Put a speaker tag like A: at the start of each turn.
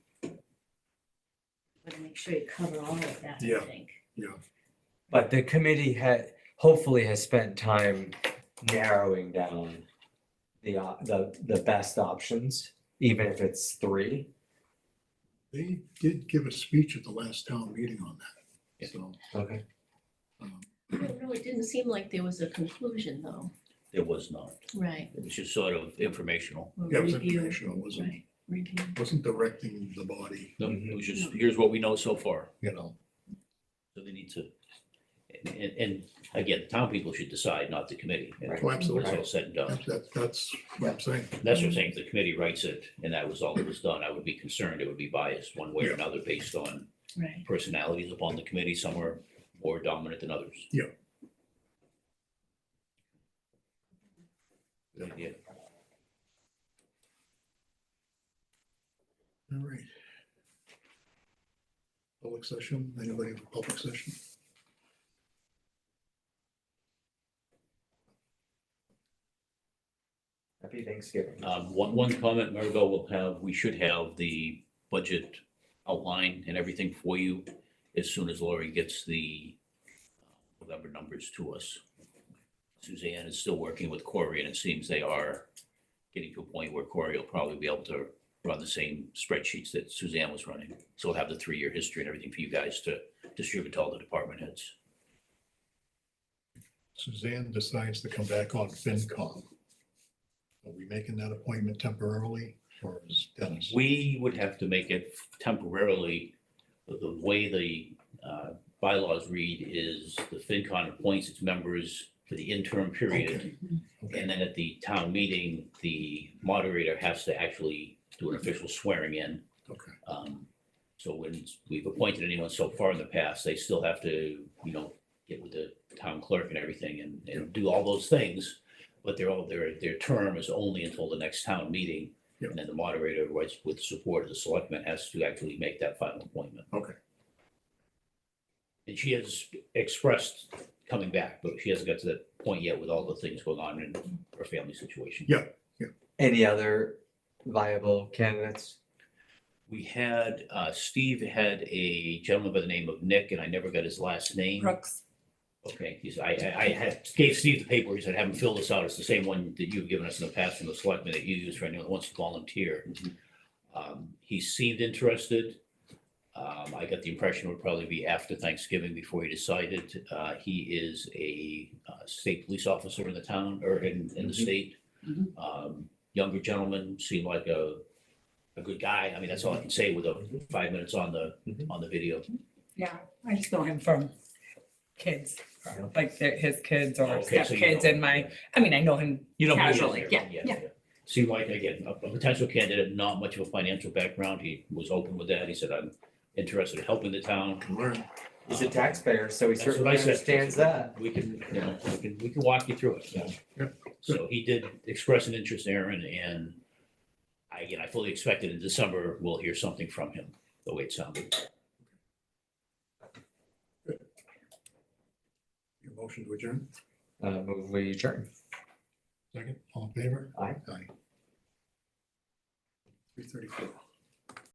A: make sure you cover all of that, I
B: Yeah.
A: think.
C: But the committee had, hopefully has spent time narrowing down the, op- the, the best options, even if it's three.
B: They did give a speech at the last town meeting on that, so.
C: Okay.
B: um,
A: I don't know, it didn't seem like there was a conclusion though,
D: There was not.
A: right?
D: It was just sort of informational.
A: or
B: Yeah, it was
A: review,
B: informational, it wasn't,
A: Right, review.
B: wasn't directing the body,
D: No,
C: Mm-hmm.
D: It was just, here's what we know so far.
B: you know.
D: So they need to, and, and- and again, town people should decide, not the committee. And
C: Right.
B: Oh,
D: When it's
B: Absolutely,
D: all said and done.
B: That's- that's, that's what I'm saying.
D: That's what I'm saying. If the committee writes it and that was all that was done, I would be concerned. It would be biased one way or
B: Yeah.
D: another based on
A: Right,
D: personalities upon the committee. Some are more dominant than others.
B: Yeah.
D: Good idea.
B: All right. Public session, anybody have a public session?
C: Happy Thanksgiving.
D: Um, one, one comment, Maribel will have, we should have the budget outline and everything for you as soon as Lori gets the uh, November numbers to us. Suzanne is still working with Corey and it seems they are getting to a point where Corey will probably be able to run the same spreadsheets that Suzanne was running. So we'll have the three-year history and everything for you guys to distribute to all the department heads.
B: Suzanne decides to come back on FinCom. Are we making that appointment temporarily or is Dennis?
D: We would have to make it temporarily, the- the way the uh, bylaws read is the FinCon appoints its members for the interim period.
B: Okay,
D: And then at the town meeting, the moderator has to actually do an official swearing in.
B: okay.
D: Um, So when we've appointed anyone so far in the past, they still have to, you know, get with the town clerk and everything and, and do all those things. But they're all, their, their term is only until the next town meeting.
B: Yeah.
D: And then the moderator, with, with support of the selectmen, has to actually make that final appointment.
B: Okay.
D: And she has expressed coming back, but she hasn't got to that point yet with all the things going on in her family situation.
B: Yeah.
C: Any other viable candidates?
D: We had, uh, Steve had a gentleman by the name of Nick, and I never got his last name.
E: Brooks.
D: Okay, he's, I, I, I had, gave Steve the paper, he said, have him fill this out, it's the same one that you've given us in the past from the selectmen that you use for anyone that wants to volunteer.
C: Mhm.
D: Um, he seemed interested. Um, I got the impression it would probably be after Thanksgiving before he decided. Uh, he is a uh, state police officer in the town, or in, in the
C: Mhm.
D: state.
E: Mhm.
D: Um, younger gentleman, seemed like a, a good guy, I mean, that's all I can say with a
C: Mhm.
D: five minutes on the,
C: Mhm.
D: on the video.
E: Yeah, I just know him from kids, like their, his kids or
D: Oh, Okay, so you
E: stepkids
D: know-
E: and my, I mean, I know him
D: You know,
E: Casually, yeah, yeah.
D: Seemed like, again, a a potential candidate, not much of a financial background. He was open with that. He said, I'm interested in helping the town.
B: Can learn.
C: He's a taxpayer, so he
D: That's what
C: certainly
D: I said.
C: understands that.
D: We can, you know, we can, we can walk you through it.
B: Yeah.
D: So he did express an interest, Aaron, and I, again, I fully expected in December, we'll hear something from him, the way it sounded.
B: Your motion to adjourn,
C: Uh, move we adjourn.
B: second, all in favor?
C: Aye.
B: Aye. Three thirty-four.